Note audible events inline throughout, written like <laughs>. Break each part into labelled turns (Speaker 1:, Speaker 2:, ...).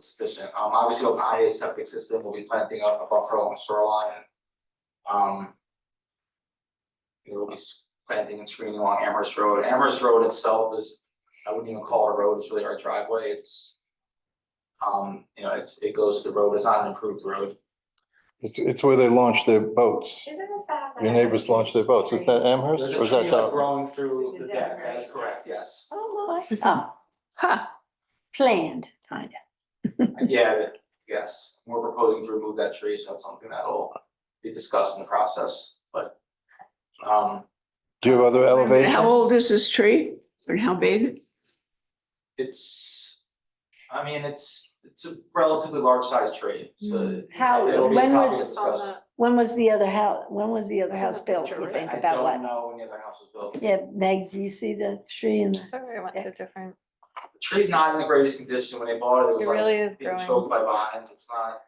Speaker 1: sufficient, um, obviously Opatia septic system will be planting up a buffer along shoreline. Um. It will be s- planting and screening along Amherst Road, Amherst Road itself is, I wouldn't even call it a road, it's really our driveway, it's. Um, you know, it's, it goes to the road, it's not an improved road,
Speaker 2: It's, it's where they launch their boats.
Speaker 3: Isn't this the house? I
Speaker 2: Your
Speaker 3: had?
Speaker 2: neighbors launch their boats. Is that Amherst
Speaker 1: there's
Speaker 2: or
Speaker 1: a
Speaker 2: is
Speaker 1: tree
Speaker 2: that
Speaker 1: like
Speaker 2: Dartmouth?
Speaker 1: growing through the
Speaker 3: The
Speaker 1: deck,
Speaker 3: deck,
Speaker 1: that is
Speaker 3: right?
Speaker 1: correct, yes,
Speaker 4: Oh, my, oh, ha, planned, kind of.
Speaker 1: yeah, that- yes, we're proposing to remove that tree, so that's something that'll. Be discussed in the process, but. Um.
Speaker 2: Do you have other elevations?
Speaker 4: How old is this tree and how big?
Speaker 1: It's, I mean, it's, it's a relatively large sized tree, so.
Speaker 4: How-
Speaker 1: it'll be a
Speaker 4: when
Speaker 1: topic
Speaker 4: was-
Speaker 1: of discussion.
Speaker 4: When was the other house, when was the other
Speaker 3: It's in
Speaker 4: house
Speaker 3: the
Speaker 4: built,
Speaker 3: picture,
Speaker 4: you
Speaker 3: right?
Speaker 4: think,
Speaker 1: I
Speaker 4: about
Speaker 1: don't
Speaker 4: what?
Speaker 1: know when the other house was built.
Speaker 4: Yeah, Meg, do you see the tree in the,
Speaker 5: Sorry, I went
Speaker 4: Yeah.
Speaker 5: to different,
Speaker 1: The tree's not in the greatest condition. When they bought it, it was
Speaker 5: it
Speaker 1: like
Speaker 5: really is
Speaker 1: being
Speaker 5: growing.
Speaker 1: choked by vines. It's not,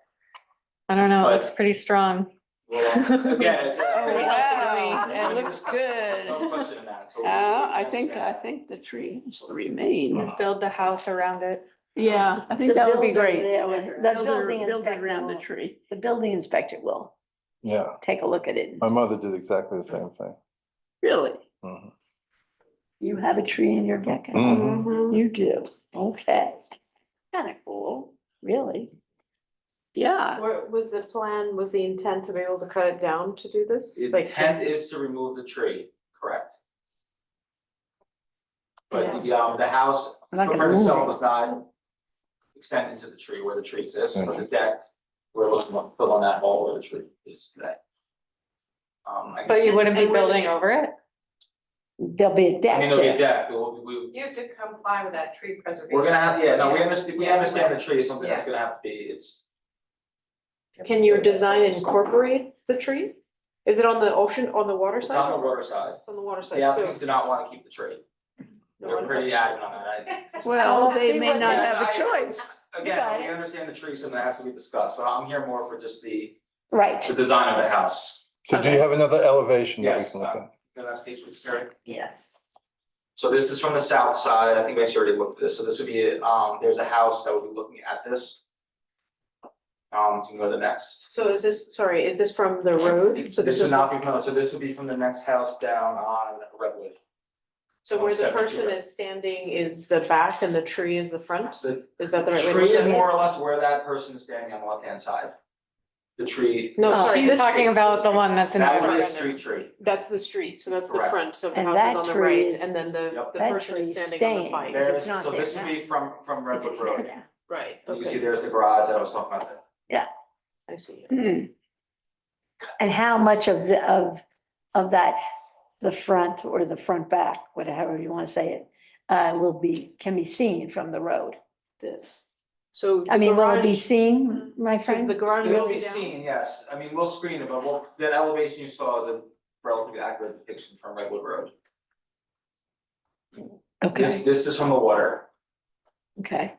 Speaker 5: I don't know,
Speaker 1: but-
Speaker 5: it's pretty strong.
Speaker 1: well, again, it's.
Speaker 5: Oh,
Speaker 1: it's-
Speaker 5: wow,
Speaker 1: it's
Speaker 5: it
Speaker 1: gonna be
Speaker 5: looks
Speaker 1: discussed. There's No
Speaker 5: good.
Speaker 1: question in that. so we-
Speaker 6: Uh, I
Speaker 1: we
Speaker 6: think, I
Speaker 1: understand
Speaker 6: think the trees remain.
Speaker 5: Build the house around it.
Speaker 6: Yeah, I think
Speaker 4: The
Speaker 6: that would be
Speaker 4: builder
Speaker 6: great.
Speaker 4: there would- the
Speaker 6: Build
Speaker 4: building
Speaker 6: build
Speaker 4: inspector
Speaker 6: Around the
Speaker 4: will-
Speaker 6: tree.
Speaker 4: the building inspector will
Speaker 2: Yeah,
Speaker 4: take a look at it.
Speaker 2: my mother did exactly the same thing.
Speaker 6: Really?
Speaker 2: Mhm.
Speaker 4: You have a tree in your deck?
Speaker 2: Mhm.
Speaker 4: You do, okay. Kind of cool, really.
Speaker 1: Uh,
Speaker 6: Yeah,
Speaker 3: Were- was the plan, was the intent to be able to cut it down to do this?
Speaker 1: The
Speaker 3: Like,
Speaker 1: intent is to remove the tree, correct? But the, um, the house
Speaker 4: I'm not
Speaker 1: footprint
Speaker 4: gonna move
Speaker 1: itself
Speaker 4: it.
Speaker 1: does not extend into the tree where the tree exists, but
Speaker 2: Okay.
Speaker 1: the deck, we're looking to put on that wall where the tree is today. Um, I
Speaker 5: But you
Speaker 1: guess,
Speaker 5: wouldn't be
Speaker 3: And where the
Speaker 5: building
Speaker 3: tr-
Speaker 5: over it?
Speaker 4: There'll be a
Speaker 1: I
Speaker 4: deck
Speaker 1: mean, it'll be a
Speaker 4: there.
Speaker 1: deck, it will- we,
Speaker 7: You have to comply with that tree preservation.
Speaker 1: we're gonna have, yeah, no, we
Speaker 7: Yeah.
Speaker 1: understand, we
Speaker 7: Yeah.
Speaker 1: understand the tree is something that's gonna have to be, it's.
Speaker 3: Can your design incorporate the tree? Is it on the ocean, on the water
Speaker 1: It's
Speaker 3: side?
Speaker 1: on the water side,
Speaker 3: It's on the water
Speaker 1: the
Speaker 3: side, so.
Speaker 1: applicants do not wanna keep the tree,
Speaker 3: no
Speaker 1: they're
Speaker 3: one-
Speaker 1: pretty adamant on that, I,
Speaker 6: well,
Speaker 4: Well,
Speaker 6: they
Speaker 4: see
Speaker 6: may
Speaker 4: what-
Speaker 6: not
Speaker 1: Yeah,
Speaker 6: have a
Speaker 1: I-
Speaker 6: choice.
Speaker 1: again,
Speaker 4: got
Speaker 1: we
Speaker 4: it.
Speaker 1: understand the tree, something that has to be discussed, so I'm here more for just the,
Speaker 4: Right,
Speaker 1: the design of the house.
Speaker 2: So do you have another elevation that we
Speaker 1: Yes,
Speaker 2: can look
Speaker 1: uh,
Speaker 2: at?
Speaker 1: the last page looks great.
Speaker 7: Yes.
Speaker 1: So this is from the south side, I think we actually already looked at this, so this would be, um, there's a house that would be looking at this. Um, you can go to the next.
Speaker 3: So is this, sorry, is this from the road? So
Speaker 1: This would not be, from- so this would be from the next house down on Redwood.
Speaker 3: So where the
Speaker 1: Seventy,
Speaker 3: person
Speaker 1: right.
Speaker 3: is standing is the back and the tree is the front?
Speaker 1: The-
Speaker 3: Is that the right way to look at it?
Speaker 1: Tree is more or less where that person is standing on the left-hand side. The tree,
Speaker 3: No,
Speaker 4: Oh,
Speaker 3: sorry,
Speaker 5: She's
Speaker 3: this
Speaker 5: talking
Speaker 3: tree,
Speaker 5: about
Speaker 3: this
Speaker 5: the
Speaker 3: tree.
Speaker 5: one that's in the
Speaker 1: that would be a
Speaker 5: front.
Speaker 1: street tree.
Speaker 3: That's the street, so that's the
Speaker 1: Correct.
Speaker 3: front, so the
Speaker 4: And
Speaker 3: house
Speaker 4: that
Speaker 3: is on the
Speaker 4: tree
Speaker 3: right,
Speaker 4: is-
Speaker 3: and then the,
Speaker 1: Yep.
Speaker 3: the
Speaker 4: That
Speaker 3: person is
Speaker 4: tree
Speaker 3: standing
Speaker 4: is
Speaker 3: on the
Speaker 4: staying.
Speaker 3: bike.
Speaker 4: There-
Speaker 1: There's,
Speaker 4: not
Speaker 1: so
Speaker 4: there
Speaker 1: this would
Speaker 4: now.
Speaker 1: be from, from
Speaker 4: if
Speaker 1: Redwood
Speaker 4: it's there
Speaker 1: Road.
Speaker 4: now.
Speaker 3: Right,
Speaker 1: You can see
Speaker 3: okay,
Speaker 1: there's the garage that I was talking about there.
Speaker 3: I see.
Speaker 6: Hmm.
Speaker 4: And how much of the, of, of that, the front or the front back, whatever you want to say it, uh, will be, can be seen from the road.
Speaker 3: This. So.
Speaker 4: I
Speaker 3: the
Speaker 4: mean, will it be
Speaker 3: garage-
Speaker 4: seen, my
Speaker 3: So the
Speaker 4: friend?
Speaker 3: garage
Speaker 1: It'll
Speaker 3: will
Speaker 1: be
Speaker 3: be down.
Speaker 1: seen, yes, I mean, we'll screen it, but we'll, that elevation you saw is a relatively accurate depiction from Redwood Road.
Speaker 4: Okay,
Speaker 1: This, this is from the water,
Speaker 4: okay.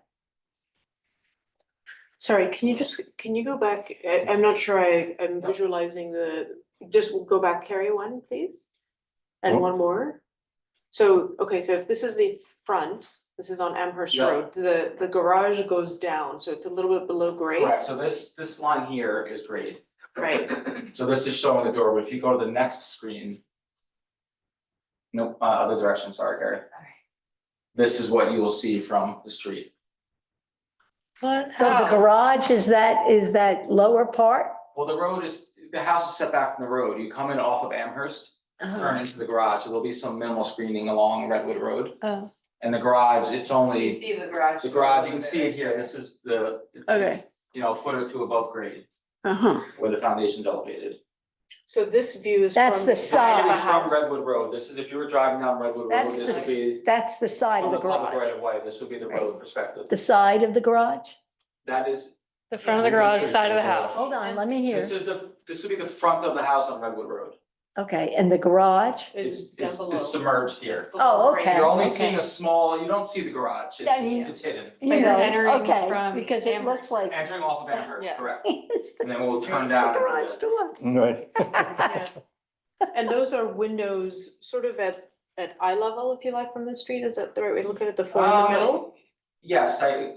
Speaker 3: Sorry, can you just, can you go back? I, I'm not sure I, I'm visualizing the, just go back, carry one, please? And
Speaker 2: Oh.
Speaker 3: one more? So, okay, so if this is the front, this is on Amherst
Speaker 1: Yeah.
Speaker 3: Road, the, the garage goes down, so it's a little bit below grade.
Speaker 1: correct, so this, this line here is grade,
Speaker 3: Right,
Speaker 1: so this is showing the door, but if you go to the next screen. Nope, uh, other direction, sorry, Carrie. This is what you will see from the street,
Speaker 4: So the garage is that, is that lower part?
Speaker 1: well, the road is, the house is set back from the road, you come in off of Amherst,
Speaker 4: Oh.
Speaker 5: Uh-huh.
Speaker 1: turn into the garage, so there'll be some minimal screening along Redwood Road.
Speaker 5: Oh.
Speaker 1: And the garage, it's only.
Speaker 7: You see the garage.
Speaker 1: The garage, you can see it here, this is the. it's,
Speaker 6: Okay.
Speaker 1: You know, a foot or two above grade,
Speaker 6: Uh-huh.
Speaker 1: where the foundation's elevated.
Speaker 3: so this view is
Speaker 4: That's
Speaker 3: from
Speaker 4: the
Speaker 3: side of
Speaker 4: side.
Speaker 3: the
Speaker 1: This is from
Speaker 3: house.
Speaker 1: Redwood Road, this is, if you were driving down Redwood Road,
Speaker 4: That's
Speaker 1: this would
Speaker 4: the,
Speaker 1: be
Speaker 4: that's the side
Speaker 1: from
Speaker 4: of the
Speaker 1: the public right
Speaker 4: garage.
Speaker 1: of way, this would be the
Speaker 4: Right.
Speaker 1: road perspective.
Speaker 4: The side of the garage?
Speaker 1: That is,
Speaker 5: The front of the garage, side of the house.
Speaker 4: Hold on, let me hear.
Speaker 1: this is the, this would be the front of the house on Redwood Road.
Speaker 4: Okay, and the garage?
Speaker 1: It's,
Speaker 3: down
Speaker 1: it's,
Speaker 3: below.
Speaker 1: it's submerged
Speaker 7: It's
Speaker 1: here.
Speaker 7: below
Speaker 4: Oh,
Speaker 7: grade.
Speaker 4: okay.
Speaker 1: You're only seeing a small, you don't see the garage,
Speaker 4: I
Speaker 1: it's,
Speaker 4: mean-
Speaker 1: it's hidden.
Speaker 4: You
Speaker 5: Like you're
Speaker 4: know,
Speaker 5: entering
Speaker 4: okay,
Speaker 5: from
Speaker 4: because it
Speaker 5: Amherst.
Speaker 4: looks like.
Speaker 1: Entering off of Amherst,
Speaker 5: Yeah.
Speaker 1: correct,
Speaker 4: <laughs> It's the
Speaker 1: and then we'll turn down. into
Speaker 4: garage door.
Speaker 2: Right.
Speaker 5: Yeah.
Speaker 3: And those are windows sort of at, at eye level, if you like, from the street, is that the right way to look at it, the
Speaker 1: the-
Speaker 3: four in the
Speaker 1: Um,
Speaker 3: middle?
Speaker 1: Yes, I,